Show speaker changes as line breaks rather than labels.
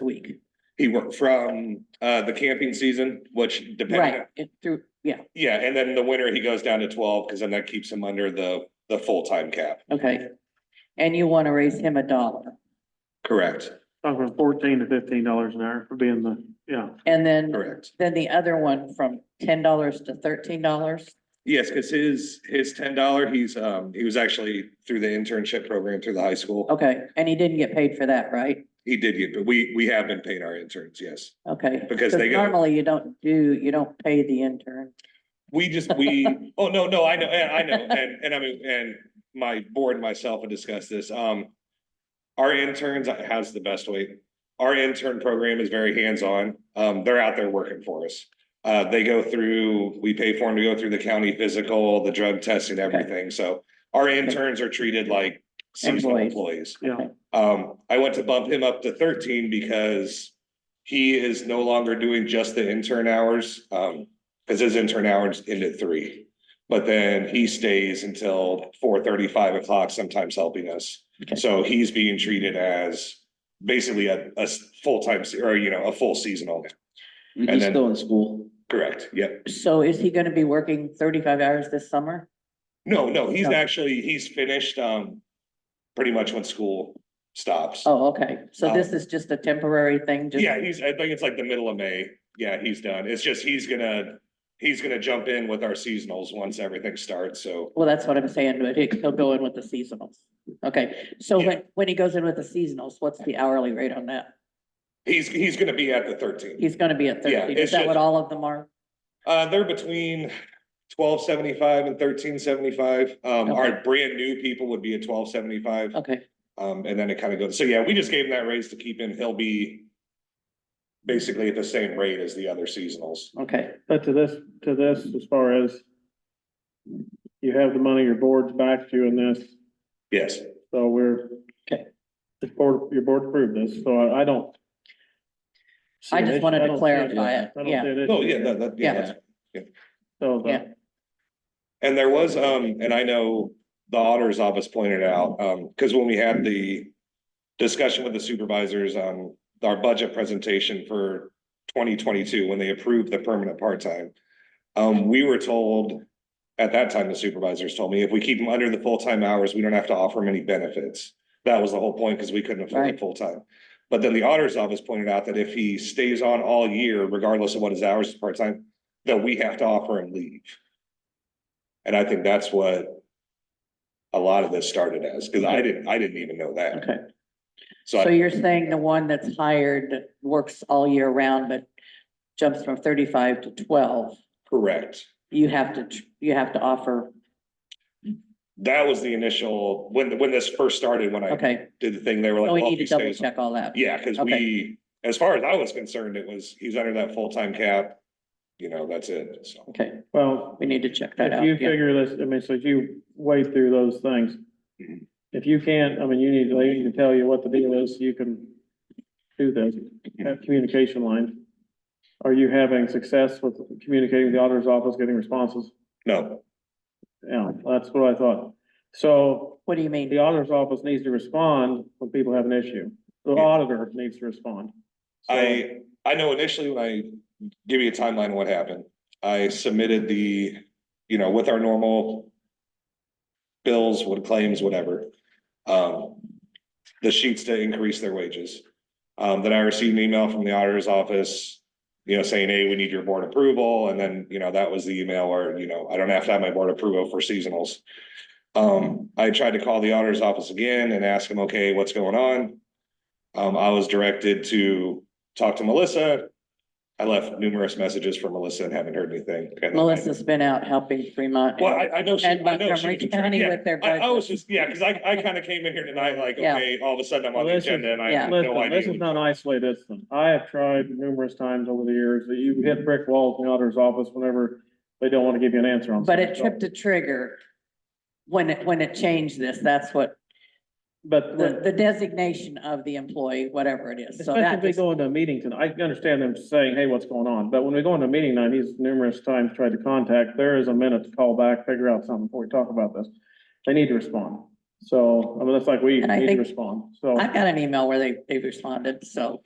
a week.
He worked from uh the camping season, which depending,
Right, it through, yeah,
yeah, and then the winter he goes down to twelve, because then that keeps him under the the full-time cap,
okay. And you want to raise him a dollar.
correct,
Talking fourteen to fifteen dollars an hour for being the, yeah.
And then,
correct.
then the other one from ten dollars to thirteen dollars.
Yes, because his his ten dollar, he's um, he was actually through the internship program through the high school.
Okay, and he didn't get paid for that, right?
He did get, but we we have been paying our interns, yes.
Okay.
Because they go-
Normally you don't do, you don't pay the intern.
We just, we, oh, no, no, I know, and I know, and, and I mean, and my board and myself have discussed this, um. Our interns uh, has the best way. Our intern program is very hands-on. Um, they're out there working for us. Uh, they go through, we pay for them to go through the county physical, the drug testing, everything, so. Our interns are treated like seasonal
Employees.
employees.
Yeah.
Um, I went to bump him up to thirteen because he is no longer doing just the intern hours. Um, because his intern hours end at three. But then he stays until four thirty, five o'clock, sometimes helping us.
Okay.
So he's being treated as basically a, a s- full-time, se- or you know, a full seasonal. And
He's
then-
still in school.
Correct, yep.
So is he going to be working thirty-five hours this summer?
No, no, he's
Okay.
actually, he's finished, um, pretty much when school stops.
Oh, okay. So
Um,
this is just a temporary thing? just-
Yeah, he's, I think it's like the middle of May. Yeah, he's done. It's just, he's gonna, he's gonna jump in with our seasonals once everything starts, so.
Well, that's what I'm saying, but he- he'll go in with the seasonals. Okay, so
Yeah.
when, when he goes in with the seasonals, what's the hourly rate on that?
He's, he's gonna be at the thirteen.
He's gonna be at
Yeah,
thirteen.
it's
Is that what
just-
all of them are?
Uh, they're between twelve seventy-five and thirteen seventy-five. Um, our
Okay.
brand new people would be at twelve seventy-five.
Okay,
Um, and then it kind of goes, so yeah, we just gave him that raise to keep him. He'll be basically at the same rate as the other seasonals.
okay.
But to this, to this, as far as you have the money, your board's backed you in this,
Yes.
so we're.
Okay.
The board, your board approved this, so I, I don't. see
I
an
just
issue.
wanted to
I don't see
clarify
an-
it,
I don't
yeah.
see an
Oh,
issue
yeah,
here.
that, that, yeah,
Yeah.
that's
So the-
Yeah.
And there was, um, and I know the auditor's office pointed out, um, because when we had the discussion with the supervisors on our budget presentation for twenty twenty-two, when they approved the permanent part-time, um, we were told, at that time, the supervisors told me, if we keep them under the full-time hours, we don't have to offer them any benefits. That was the whole point, because we couldn't afford
Right.
it full-time. But then the auditor's office pointed out that if he stays on all year, regardless of what his hours is part-time, that we have to offer him leave. And I think that's what a lot of this started as, because I didn't, I didn't even know that.
Okay,
So
so
I,
you're saying the one that's hired works all year round, but jumps from thirty-five to twelve,
correct.
you have to, tr- you have to offer,
That was the initial, when, when this first started, when I
okay.
did the thing, they were like.
So we
well,
need
if
to
he
double
stays-
check all that.
Yeah, because
Okay.
we, as far as I was concerned, it was, he's under that full-time cap. You know, that's it, so.
Okay,
well,
we need to check that
If
out.
you
yeah.
figure this, I mean, so if you wade through those things.
Mhm.
If you can't, I mean, you need, they can tell you what the deal is, you can do this, have communication lines. Are you having success with communicating with the auditor's office, getting responses?
No,
Yeah, that's what I thought. So
What do you mean?
the auditor's office needs to respond when people have an issue. The
Yeah.
auditor needs to respond. So-
I, I know initially when I, give you a timeline of what happened. I submitted the, you know, with our normal bills, what claims, whatever, um, the sheets to increase their wages. Um, then I received an email from the auditor's office, you know, saying, hey, we need your board approval. And then, you know, that was the email where, you know, I don't have to have my board approval for seasonals. Um, I tried to call the auditor's office again and ask them, okay, what's going on? Um, I was directed to talk to Melissa. I left numerous messages for Melissa and haven't heard anything. And then I-
Melissa's been out helping Fremont.
Well, I, I know. she-
And
I know she
Montgomery
can-
County
yeah.
with their
I, I was
budget.
just, yeah, because I, I kind of came in here tonight like,
Yeah.
okay, all of a sudden I'm on
Well,
the
this is-
agenda and I have no
Listen, this is
idea.
not isolated. incident. I have tried numerous times over the years that you hit brick walls in the auditor's office whenever they don't want to give you an answer on.
But it
something.
tripped a trigger when it, when it changed this, that's what,
But
the,
when-
the designation of the employee, whatever it is, so
especially
that
if we
just,
go into a meeting tonight, I understand them saying, hey, what's going on? But when we go into a meeting night, he's numerous times tried to contact, there is a minute to call back, figure out something before we talk about this. They need to respond. So, I mean, that's like we
And I
need to
think-
respond, so.
I got an email where they, they responded, so.